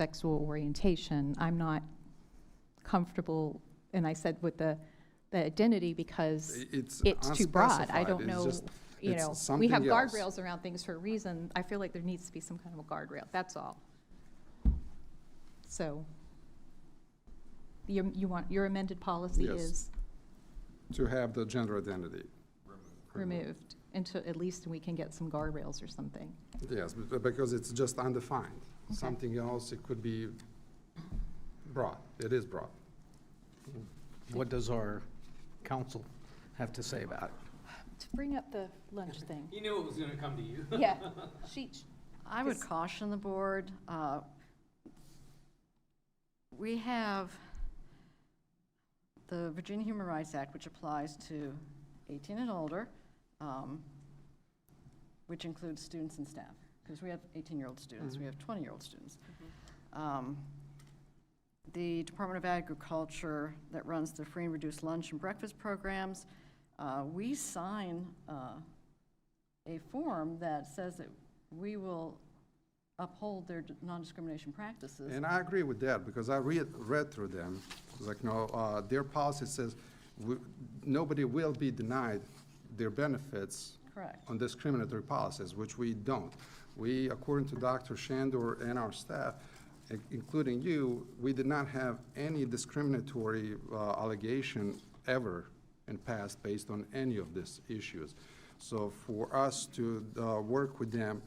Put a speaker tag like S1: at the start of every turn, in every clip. S1: sexual orientation. I'm not comfortable, and I said with the, the identity because
S2: It's
S1: it's too broad. I
S2: unspecified.
S1: don't
S2: It's
S1: know,
S2: just-
S1: you
S2: it's
S1: know, we
S2: something
S1: have
S2: else.
S1: guardrails around things for a reason. I feel like there needs to be some kind of a guardrail, that's all. So you, you want, your amended policy
S2: Yes.
S1: is
S2: To have the gender identity.
S1: removed until, at least we can get some guardrails or something.
S2: Yes, be- because it's just undefined. Something else, it could be broad. It is broad.
S3: What does our council have to say about it?
S1: To bring up the lunch thing,
S4: He knew it was gonna come to you.
S1: yeah, she,
S5: I would
S1: Yes.
S5: caution the board. uh, We have the Virginia Human Rights Act, which applies to 18 and older, um, which includes students and staff, because we have 18-year-old students, we
S2: Mm-hmm.
S5: have 20-year-old students. Um, The Department of Agriculture that runs the free and reduced lunch and breakfast programs, uh, we sign uh, a form that says that we will uphold their non-discrimination practices.
S2: And I agree with that, because I read, read through them. It's like, no, uh, their policy says, we- nobody will be denied their benefits
S5: Correct.
S2: on discriminatory policies, which we don't. We, according to Dr. Shandor and our staff, i- including you, we did not have any discriminatory uh, allegation ever in past based on any of these issues. So for us to uh, work with them,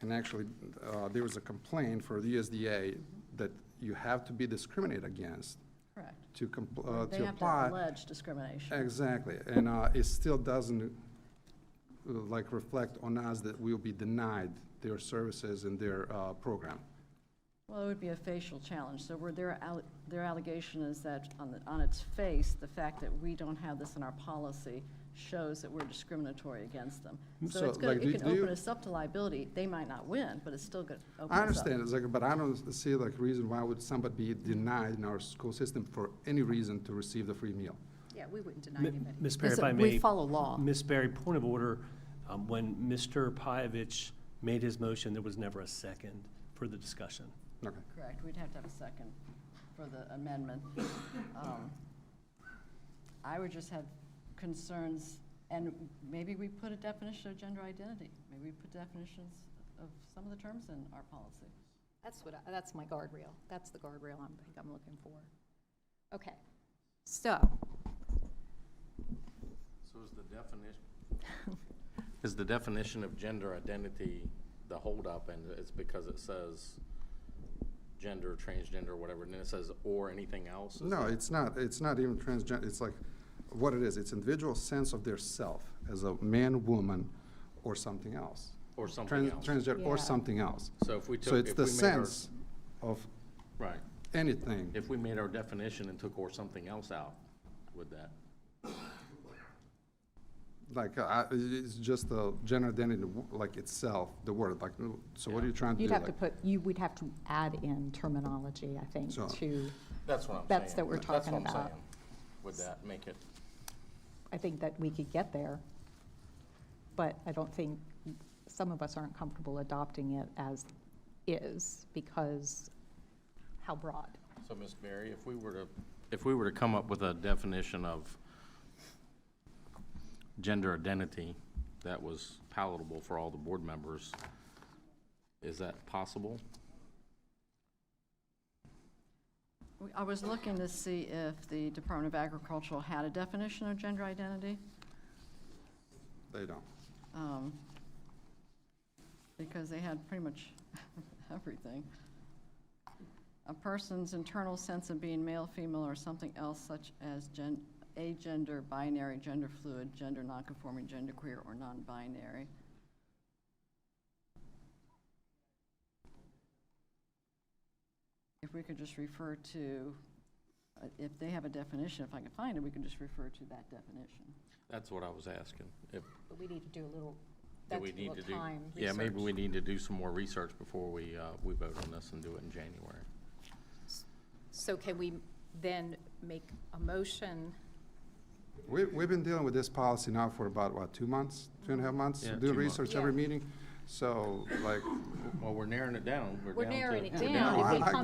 S2: and actually, uh, there was a complaint for the USDA that you have to be discriminated against
S5: Correct.
S2: to compl- uh,
S5: They
S2: to
S5: have to
S2: apply.
S5: allege discrimination.
S2: Exactly, and uh, it still doesn't, uh, like, reflect on us that we'll be denied their services and their uh, program.
S5: Well, it would be a facial challenge, so where their, alle- their allegation is that on, the- on its face, the fact that we don't have this in our policy shows that we're discriminatory against them. So
S2: Mm, So,
S5: it's gonna,
S2: like,
S5: it
S2: do-
S5: can
S2: do you-
S5: open us up to liability. They might not win, but it's still gonna open us up.
S2: I understand, it's like, but I don't see like reason why would somebody be denied in our school system for any reason to receive the free meal.
S1: yeah, we wouldn't deny
S6: M-
S1: anybody.
S6: Ms. Barry, if I
S5: Listen, we
S6: may.
S5: follow law.
S6: Ms. Barry, point of order, um, when Mr. Pyavich made his motion, there was never a second for the discussion.
S2: Okay.
S5: Correct, we'd have to have a second for the amendment. Um, I would just have concerns, and maybe we put a definition of gender identity. Maybe we put definitions of some of the terms in our policy.
S1: That's what, I- that's my guardrail. That's the guardrail I'm, think I'm looking for. Okay, so,
S7: So is the definition, is the definition of gender identity the holdup, and it's because it says gender, transgender, whatever, and then it says or anything else? Is
S2: No,
S7: that-
S2: it's not, it's not even transgender, it's like, what it is, it's individual sense of their self as a man, woman, or something else.
S7: Or something
S2: Trans-
S7: else?
S2: Transgender, or
S1: Yeah.
S2: something else.
S7: So if we took.
S2: So it's
S7: if
S2: the
S7: we made our-
S2: sense of
S7: Right.
S2: anything.
S7: If we made our definition and took or something else out, would that?
S2: Like, uh, it's just the gender identity, like itself, the word, like, uh, so what are you trying to do?
S1: you'd have to
S2: Like,
S1: put, you would have to add in terminology, I think,
S2: So-
S1: to,
S7: That's what I'm saying.
S1: That's what we're talking
S7: what I'm
S1: about.
S7: saying. Would that make it?
S1: I think that we could get there. But I don't think, some of us aren't comfortable adopting it as is because how broad?
S7: So, Ms. Berry, if we were to, if we were to come up with a definition of gender identity that was palatable for all the board members, is that possible?
S5: We- I was looking to see if the Department of Agricultural had a definition of gender identity,
S2: They don't.
S5: um, because they had pretty much everything. A person's internal sense of being male, female, or something else such as gen, agender, binary, gender fluid, gender nonconforming, genderqueer, or non-binary. If we could just refer to, uh, if they have a definition, if I can find it, we can just refer to that definition.
S7: That's what I was asking. If,
S1: But we need to do a little,
S7: do we need to do? Yeah, maybe we need to do some more research before we, uh, we vote on this and do it in January.
S1: So can we then make a motion?
S2: We, we've been dealing with this policy now for about, what, two months, two and a half months?
S7: Yeah,
S2: Do
S7: two months.
S2: research every
S1: Yeah.
S2: meeting, so, like,
S7: Well, we're narrowing it down.
S1: We're
S7: down to-
S1: narrowing it
S7: we're
S1: down.
S2: No,
S1: If we
S2: I- I
S1: come